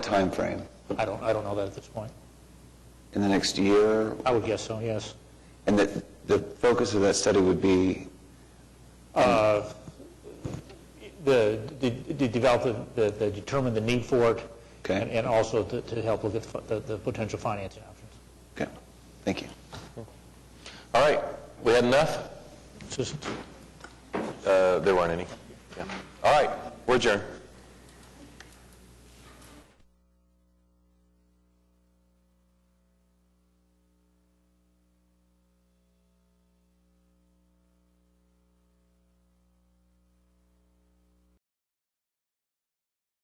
time frame? I don't, I don't know that at this point. In the next year? I would guess so, yes. And that the focus of that study would be, The, the- to develop, the- the, the determine the need for it. Okay. and- And also to, to help look at fi- the, the potential financing options. okay, thank you. All right, we had enough? Just- Uh, There weren't any. Yeah. All right, we're adjourned.